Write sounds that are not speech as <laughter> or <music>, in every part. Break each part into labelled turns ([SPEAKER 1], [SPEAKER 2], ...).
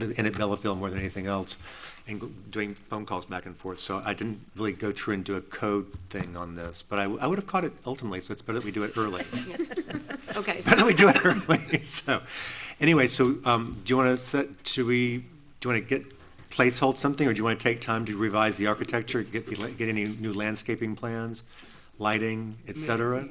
[SPEAKER 1] in at Bellaville more than anything else, and g- doing phone calls back and forth. So I didn't really go through and do a code thing on this, but I, w- I would have caught it ultimately, so it's better that we do it early.
[SPEAKER 2] <laughs> Yeah. Okay,
[SPEAKER 1] <laughs> Better that we
[SPEAKER 2] so-
[SPEAKER 1] do it early, <laughs> so, anyway, so, um, do you want to set, should we, do you want to get, placehold something, or do you want to take time to revise the architecture, get, the la- get any new landscaping plans, lighting, et cetera?
[SPEAKER 3] Uh,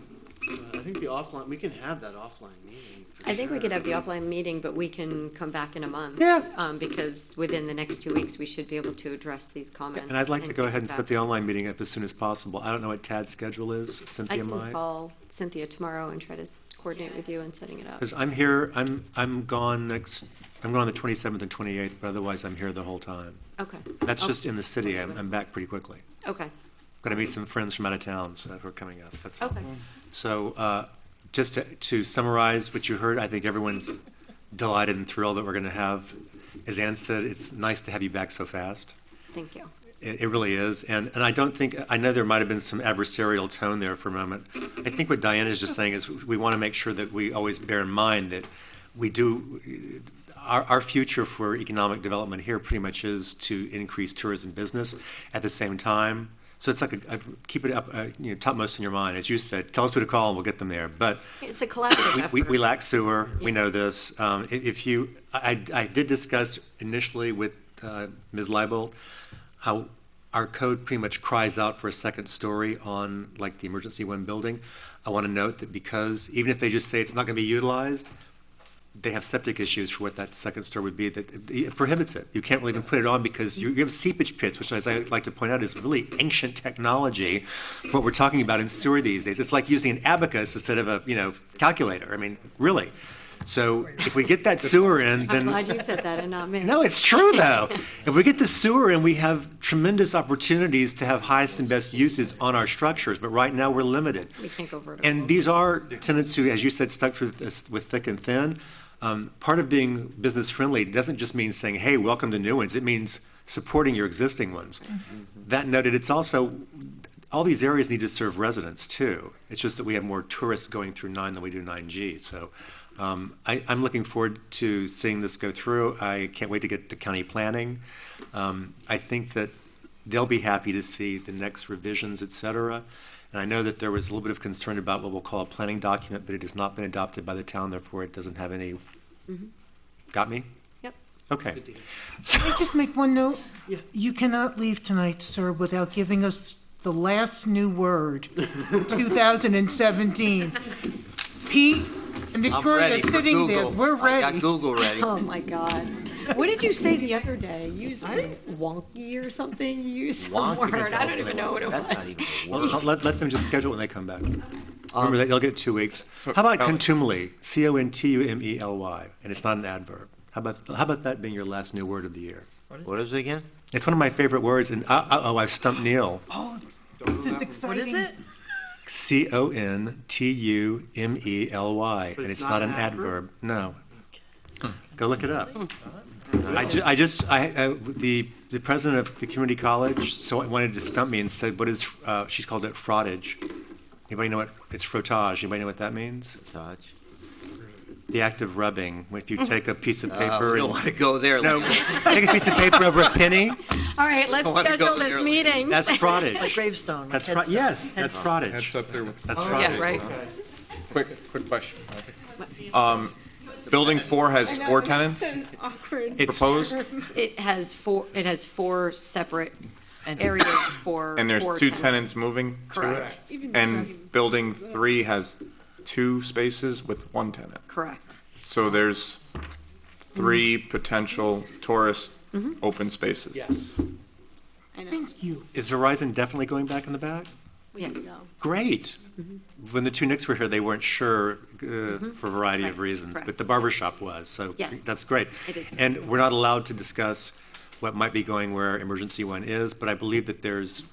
[SPEAKER 3] I think the offline, we can have that offline meeting. for
[SPEAKER 2] I think we could
[SPEAKER 3] sure.
[SPEAKER 2] have the offline meeting, but we can come back in a month.
[SPEAKER 1] Mm-hmm. Yeah.
[SPEAKER 2] Um, because within the next two weeks, we should be able to address these comments.
[SPEAKER 1] And I'd like to go
[SPEAKER 2] get
[SPEAKER 1] ahead and set
[SPEAKER 2] back.
[SPEAKER 1] the online meeting up as soon as possible. I don't know what Tad's schedule is,
[SPEAKER 2] I
[SPEAKER 1] Cynthia,
[SPEAKER 2] can
[SPEAKER 1] mine.
[SPEAKER 2] call Cynthia tomorrow and try to coordinate with you on setting it up.
[SPEAKER 1] Because I'm here, I'm, I'm gone next, I'm gone the 27th and 28th, but otherwise I'm here the whole time.
[SPEAKER 2] Okay.
[SPEAKER 1] That's
[SPEAKER 2] I'll-
[SPEAKER 1] just in the city, I'm,
[SPEAKER 2] Okay.
[SPEAKER 1] I'm back pretty quickly.
[SPEAKER 2] Okay,
[SPEAKER 1] Going to meet some friends from out of town, so who are coming up, that's all.
[SPEAKER 2] okay.
[SPEAKER 1] So uh, just to- to summarize what you heard, I think everyone's delighted and thrilled that we're going to have, as Ann said, it's nice to have you back so fast.
[SPEAKER 2] Thank you.
[SPEAKER 1] It, it really is, and, and I don't think, I know there might have been some adversarial tone there for a moment. I think what Diana is just saying is, we want to make sure that we always bear in mind that we do, our, our future for economic development here pretty much is to increase tourism business at the same time. So it's like, a, a- keep it up, uh, you know, topmost in your mind, as you said, tell us who to call and we'll get them there, but
[SPEAKER 2] It's a collaborative effort.
[SPEAKER 1] we, we lack sewer, we
[SPEAKER 2] Yeah.
[SPEAKER 1] know this. Um, i- If you, I, I I did discuss initially with uh, Ms. Leibold, how our code pretty much cries out for a second story on like the emergency one building. I want to note that because, even if they just say it's not going to be utilized, they have septic issues for what that second story would be, that it prohibits it. You can't really even put it on because you you have seepage pits, which as I like to point out is really ancient technology for what we're talking about in sewer these days. It's like using an abacus instead of a, you know, calculator. I mean, really. So if we get
[SPEAKER 2] <laughs>
[SPEAKER 1] that sewer in,
[SPEAKER 2] I'm
[SPEAKER 1] then.
[SPEAKER 2] glad you said that and not me.
[SPEAKER 1] No, it's
[SPEAKER 2] <laughs>
[SPEAKER 1] true though. If we get the sewer in, we have tremendous opportunities to have highest and best uses on our structures, but right now we're limited.
[SPEAKER 2] We can't go vertical.
[SPEAKER 1] And these are tenants who, as you said, stuck through this with thick and thin. Um, Part of being business friendly doesn't just mean saying, hey, welcome to new ones. It means supporting your existing ones. That noted, it's also, all these areas need to serve residents too. It's just that we have more tourists going through nine than we do nine G. So um, I, I'm looking forward to seeing this go through. I can't wait to get to county planning. Um, I think that they'll be happy to see the next revisions, et cetera. And I know that there was a little bit of concern about what we'll call a planning document, but it has not been adopted by the town, therefore it doesn't have any,
[SPEAKER 2] Mhm.
[SPEAKER 1] got me?
[SPEAKER 2] Yep.
[SPEAKER 1] Okay.
[SPEAKER 3] Good deal.
[SPEAKER 1] So-
[SPEAKER 4] Can I just make one note?
[SPEAKER 3] Yeah.
[SPEAKER 4] You cannot leave tonight, sir, without giving us the last new <laughs> word, 2017. Pete and
[SPEAKER 5] I'm
[SPEAKER 4] Victoria
[SPEAKER 5] ready for
[SPEAKER 4] sitting there,
[SPEAKER 5] Google.
[SPEAKER 4] we're
[SPEAKER 5] I got
[SPEAKER 4] ready.
[SPEAKER 5] Google ready.
[SPEAKER 2] Oh, my God. What did you say the other day? You used wonky or something? You used some
[SPEAKER 5] Wonky
[SPEAKER 2] word. I don't
[SPEAKER 5] doesn't
[SPEAKER 2] even
[SPEAKER 5] work.
[SPEAKER 2] know what it was.
[SPEAKER 5] That's not even a
[SPEAKER 1] Well, I'll Let, let them just schedule it when they come back. Remember that, you'll get two weeks. How
[SPEAKER 5] So-
[SPEAKER 1] about
[SPEAKER 5] Ellie.
[SPEAKER 1] contumely, C-O-N-T-U-M-E-L-Y, E and it's not an adverb? How about, how about that being your last new word of the year?
[SPEAKER 5] What is it again?
[SPEAKER 1] It's one of my favorite words, and, uh, uh-oh, I've stumped Neil.
[SPEAKER 4] Oh, this is exciting. What is it?
[SPEAKER 1] C-O-N-T-U-M-E-L-Y, E and it's not an adverb, no. Go look it up. I ju, I just, I, uh, the, the president of the community college, so wanted to stump me and said, what is, uh, she's called it frottage. Anybody know what, it's frottage, anybody know what that means?
[SPEAKER 5] Touch.
[SPEAKER 1] The act of rubbing, if you take a piece of
[SPEAKER 5] Uh, we
[SPEAKER 1] paper
[SPEAKER 5] don't want to
[SPEAKER 1] and.
[SPEAKER 5] go there. <laughs>
[SPEAKER 1] No, <laughs>
[SPEAKER 5] Lincoln.
[SPEAKER 1] take a piece of paper over a penny,
[SPEAKER 2] All right, let's
[SPEAKER 5] Oh, I wanna go
[SPEAKER 2] schedule this
[SPEAKER 5] early.
[SPEAKER 2] meeting. <laughs>
[SPEAKER 1] that's
[SPEAKER 6] Like
[SPEAKER 1] frottage.
[SPEAKER 6] gravestone.
[SPEAKER 1] That's, fro- yes, that's
[SPEAKER 7] That's
[SPEAKER 1] frottage,
[SPEAKER 7] up there with,
[SPEAKER 1] that's
[SPEAKER 2] Yeah,
[SPEAKER 1] frottage.
[SPEAKER 2] right.
[SPEAKER 7] quick, quick question. Um, Building four has four tenants
[SPEAKER 1] It's,
[SPEAKER 7] proposed,
[SPEAKER 2] It has four, it has four separate areas for.
[SPEAKER 7] and there's
[SPEAKER 2] four
[SPEAKER 7] two tenants moving to it?
[SPEAKER 2] Correct.
[SPEAKER 7] And building three has two spaces with one tenant.
[SPEAKER 2] Correct.
[SPEAKER 7] So there's three potential tourist
[SPEAKER 2] Mm-hmm.
[SPEAKER 7] open spaces.
[SPEAKER 3] Yes.
[SPEAKER 4] <laughs> Thank you.
[SPEAKER 1] is Verizon definitely going back in the back?
[SPEAKER 2] Yes.
[SPEAKER 1] Great.
[SPEAKER 2] Mm-hmm.
[SPEAKER 1] When the two Knicks were here, they weren't sure uh, for a variety of
[SPEAKER 2] Right.
[SPEAKER 1] reasons, but
[SPEAKER 2] Correct.
[SPEAKER 1] the barber shop was, so
[SPEAKER 2] Yes.
[SPEAKER 1] that's great.
[SPEAKER 2] It is.
[SPEAKER 1] And we're not allowed to discuss what might be going where emergency one is, but I believe that there's,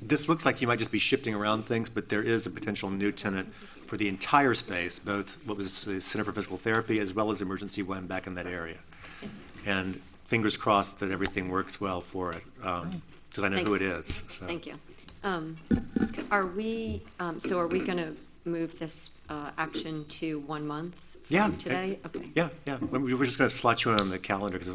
[SPEAKER 1] this looks like you might just be shifting around things, but there is a potential new tenant for the entire space, both what was the Center for Physical Therapy as well as emergency one back in that area. And fingers crossed that everything works well for it, because I know
[SPEAKER 2] Thank
[SPEAKER 1] who it
[SPEAKER 2] you.
[SPEAKER 1] is, so.
[SPEAKER 2] Thank you. Um, Are we, um, so are we going to move this uh, action to one month
[SPEAKER 1] Yeah.
[SPEAKER 2] from today? Okay.
[SPEAKER 1] Yeah, yeah. We we were just going to slot you in on the calendar because